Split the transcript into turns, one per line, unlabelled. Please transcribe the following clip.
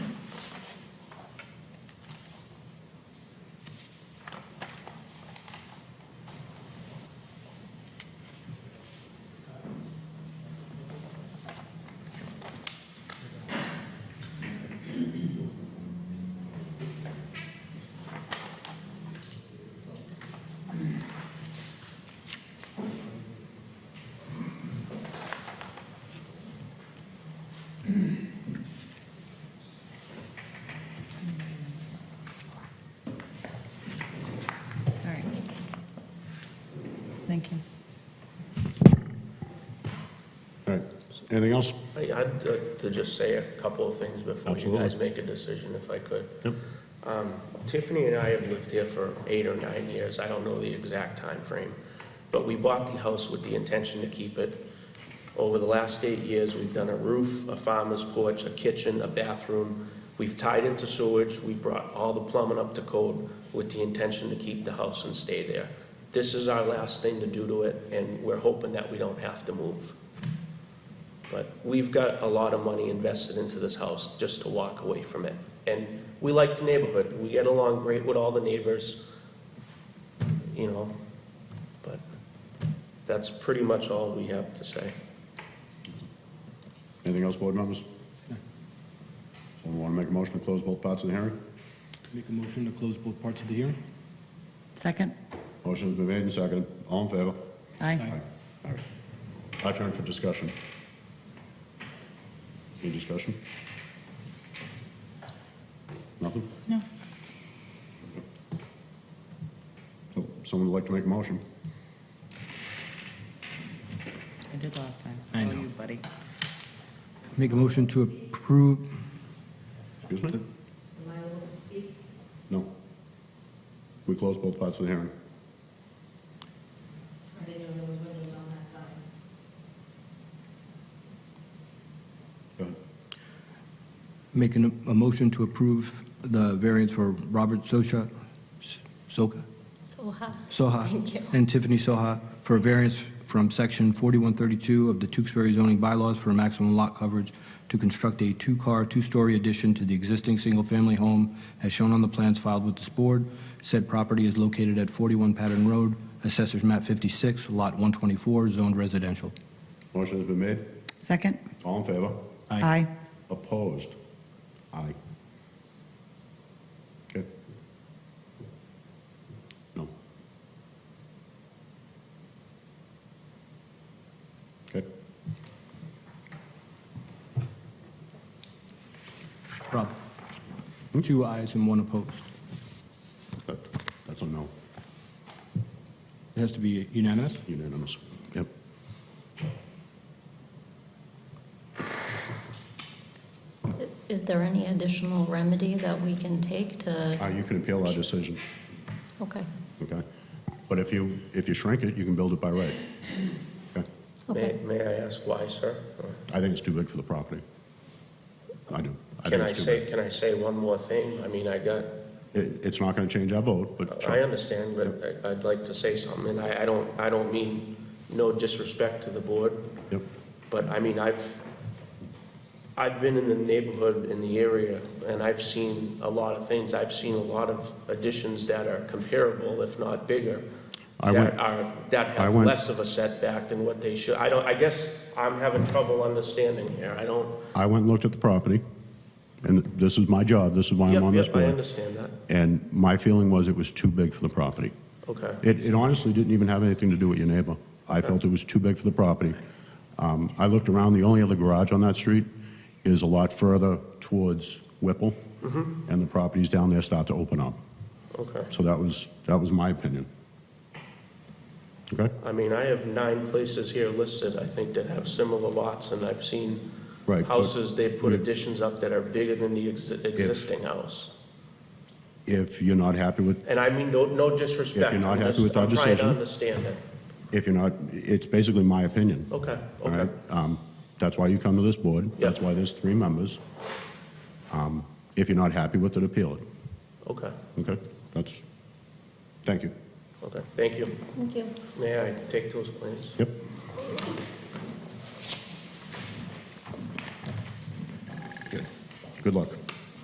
Thank you.
All right, anything else?
I- I'd like to just say a couple of things before you
Absolutely.
guys make a decision, if I could.
Yep.
Um, Tiffany and I have lived here for eight or nine years, I don't know the exact time frame, but we bought the house with the intention to keep it. Over the last eight years, we've done a roof, a farmer's porch, a kitchen, a bathroom. We've tied into sewage, we've brought all the plumbing up to code with the intention to keep the house and stay there. This is our last thing to do to it, and we're hoping that we don't have to move. But we've got a lot of money invested into this house just to walk away from it. And we like the neighborhood. We get along great with all the neighbors, you know, but that's pretty much all we have to say.
Anything else, board members? Someone want to make a motion to close both parts of the hearing?
Make a motion to close both parts of the hearing?
Second?
Motion's been made and seconded. All in favor?
Aye.
All right. My turn for discussion. Any discussion? Nothing?
No.
So, Someone would like to make a motion?
I did last time.
I
Oh,
know.
you, buddy.
Make a motion to approve,
Excuse me? Am I able to speak? No. We closed both parts of the hearing.
I didn't know there was windows on that side.
Go ahead.
make an- a motion to approve the variance for Robert Socha, Soka?
Soha.
Soha.
Thank you.
And Tiffany Soha for a variance from section 4132 of the Tewksbury zoning bylaws for maximum lot coverage to construct a two-car, two-story addition to the existing single-family home as shown on the plans filed with this board. Said property is located at 41 Patton Road, Assessors Map 56, Lot 124, zoned residential.
Motion has been made.
Second?
All in favor?
Aye.
Opposed? Aye. Okay. No. Okay.
Rob? Two ayes and one opposed.
That, that's a no,
It has to be unanimous?
unanimous. Yep.
Is there any additional remedy that we can take
Uh,
to,
you can appeal our decision,
okay,
okay? But if you, if you shrink it, you can build it by right. Okay?
May,
okay.
may I ask why, sir?
I think it's too big for the property. I do. I
Can
think
I
it's too
say,
big.
can I say one more thing? I mean, I got,
It, it's not gonna change our vote, but
I
sure.
understand, but I- I'd like to say something, and I, I don't, I don't mean no disrespect to the board,
Yep,
But I mean, I've, I've been in the neighborhood, in the area, and I've seen a lot of things. I've seen a lot of additions that are comparable, if not bigger,
I went-
that are, that
I
have
went-
less of a setback than what they should. I don't, I guess I'm having trouble understanding here. I don't.
I went and looked at the property, and this is my job, this is why
Yep,
I'm on this
yep, I
board.
understand that.
And my feeling was it was too big for the property.
Okay.
It, it honestly didn't even have anything to do with your neighbor. I felt it was too big for the property. Um, I looked around, the only other garage on that street is a lot further towards Whipple,
Mm-hmm.
and the properties down there start to open up.
Okay.
So that was, that was my opinion. Okay?
I mean, I have nine places here listed, I think, that have similar lots, and I've seen
Right, but
houses, they put
we-
additions up that are bigger than the exi- existing house.
If you're not happy with,
And I mean, no, no disrespect.
If you're not
I'm
happy
just-
with our
I'm trying
decision.
to understand it.
if you're not, it's basically my opinion.
Oh, Okay,
All right,
okay.
um, that's why you come to this board, that's
Yeah.
why there's three members. Um, If you're not happy with it, appeal it,
Okay,
okay? That's, thank you.
okay. Thank you.
Thank you.
May I take those, please?
Yep. Good. Good luck.